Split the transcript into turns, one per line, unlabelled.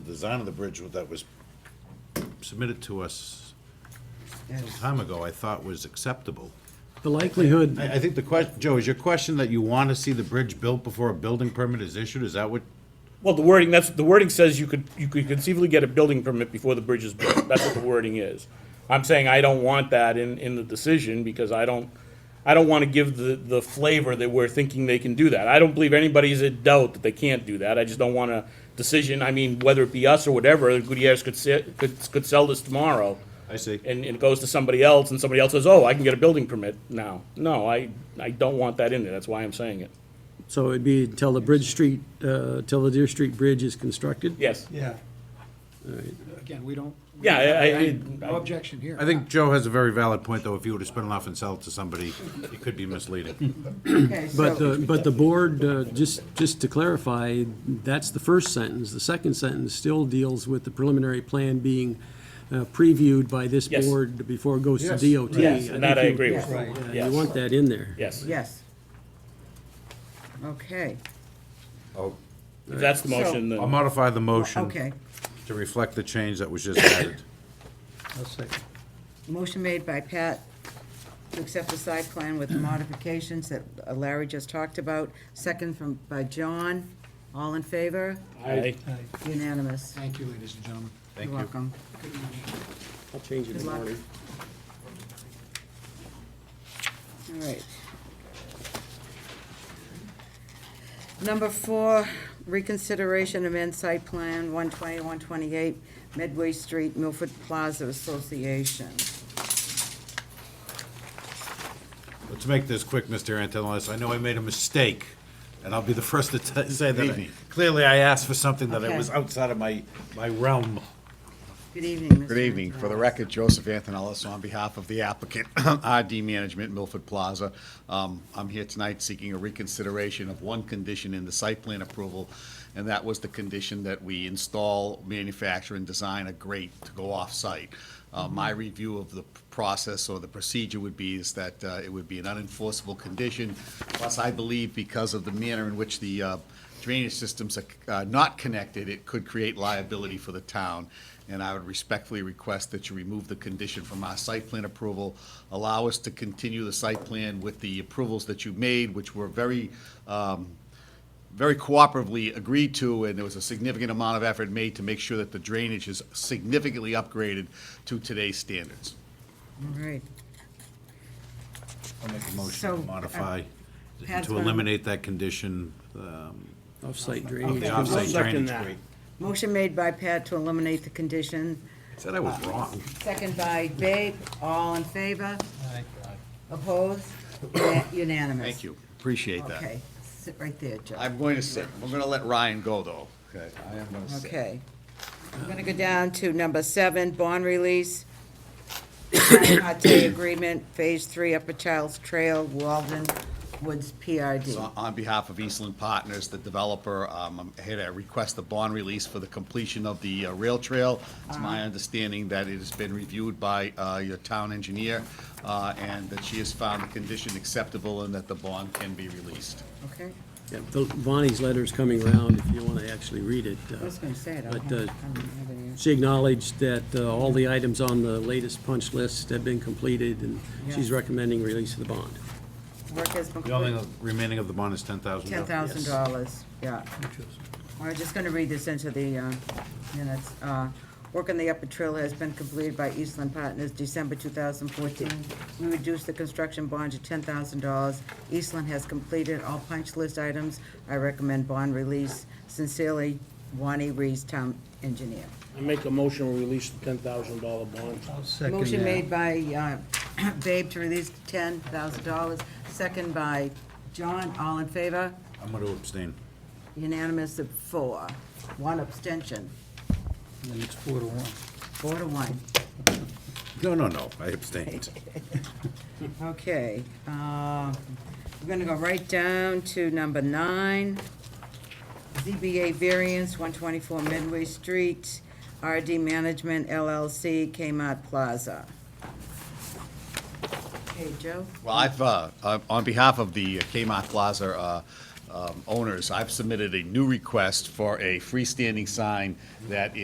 design of the bridge that was submitted to us some time ago, I thought was acceptable.
The likelihood,
I, I think the question, Joe, is your question that you want to see the bridge built before a building permit is issued? Is that what?
Well, the wording, that's, the wording says you could, you could conceivably get a building permit before the bridge is built. That's what the wording is. I'm saying I don't want that in, in the decision because I don't, I don't want to give the, the flavor that we're thinking they can do that. I don't believe anybody's in doubt that they can't do that. I just don't want a decision, I mean, whether it be us or whatever, Gutierrez could sit, could, could sell this tomorrow.
I see.
And, and it goes to somebody else and somebody else says, oh, I can get a building permit now. No, I, I don't want that in there. That's why I'm saying it.
so it'd be until the Bridge Street, uh, till the Deer Street Bridge is constructed?
Yes.
Yeah. Again, we don't.
Yeah, I- I-
I- No objection here.
I think Joe has a very valid point, though. If you were to spin it off and sell it to somebody, it could be misleading.
Okay,
But,
so,
the but the board, uh, just, just to clarify, that's the first sentence. The second sentence still deals with the preliminary plan being uh, previewed by this
Yes.
board before it goes to
Yes.
DOT.
Yes,
think
and that I
you-
agree with.
Right.
yeah,
Yes.
You want that in there.
Yes.
yes. Okay,
If that's the
So-
motion,
I'll
then,
modify the motion
okay.
to reflect the change that was just added.
I'll second.
Motion made by Pat to accept the site plan with the modifications that Larry just talked about. Second from, by John. All in favor?
I,
Aye.
Unanimous.
Thank you, ladies and gentlemen.
Thank
You're
you.
welcome.
I'll change it in
Good
the
luck.
morning.
All right. Number four, reconsideration amend site plan 120, 128 Medway Street, Milford Plaza Association.
Let's make this quick, Mr. Antonopoulos. I know I made a mistake, and I'll be the first to t- say that. I- Clearly, I asked for something that I
Okay.
was outside of my, my realm.
Good evening, Mr.
Good evening. For the
Antonelli.
record, Joseph Antonellis on behalf of the applicant, RD Management, Milford Plaza. Um, I'm here tonight seeking a reconsideration of one condition in the site plan approval, and that was the condition that we install, manufacture, and design a grate to go off-site. Uh, My review of the process or the procedure would be is that uh, it would be an unenforceable condition. Plus, I believe because of the manner in which the uh, drainage systems are uh, not connected, it could create liability for the town. And I would respectfully request that you remove the condition from our site plan approval. Allow us to continue the site plan with the approvals that you made, which were very, um, very cooperatively agreed to, and there was a significant amount of effort made to make sure that the drainage is significantly upgraded to today's standards.
All right.
I'll make a
So,
motion
uh,
to modify,
Pat's
to
gonna-
eliminate that condition, um,
Off-site
of
drainage.
the offsite drainage grate.
Motion made by Pat to eliminate the condition,
Said I was wrong.
second by Babe. All in favor?
Aye.
Opposed? Una- Unanimous.
Thank you, appreciate that.
Okay, sit right there, Joe.
I'm going to sit, we're going to let Ryan go, though. Okay. I am going to sit.
Okay. I'm gonna go down to number seven, bond release. Tri-party agreement, phase three, Upper Childs Trail, Walden Woods
So
PRD.
on behalf of Eastland Partners, the developer, um, I'm here to request the bond release for the completion of the uh, rail trail. It's my understanding that it has been reviewed by uh, your town engineer, uh, and that she has found the condition acceptable and that the bond can be released.
Okay,
Yeah, the- Bonnie's letter's coming around, if you want to actually read it. uh,
I was gonna say it. I
But,
don't
uh,
I don't have it here.
She acknowledged that uh, all the items on the latest punch list have been completed, and she's
Yeah.
recommending release of the bond.
Work has been.
The only remaining of the bond is ten thousand.
Ten thousand dollars, yeah. We're just gonna read this into the uh, minutes. Uh, Work on the upper trail has been completed by Eastland Partners December two thousand fourteen. We reduced the construction bond to ten thousand dollars. Eastland has completed all punch list items. I recommend bond release. Sincerely, Wani Rees, Town Engineer.
I make a motion to release the ten thousand dollar bond.
I'll second that.
Motion made by uh, Babe to release ten thousand dollars, second by John. All in favor?
I'm gonna abstain.
Unanimous of four, one abstention,
And it's four to one.
four to one.
No, no, no, I abstained.
Okay, uh, we're gonna go right down to number nine. ZBA variance, one twenty-four Midway Street, RD Management LLC, Kmart Plaza. Okay, Joe?
Well, I've, uh, uh, on behalf of the Kmart Plaza uh, um, owners, I've submitted a new request for a freestanding sign that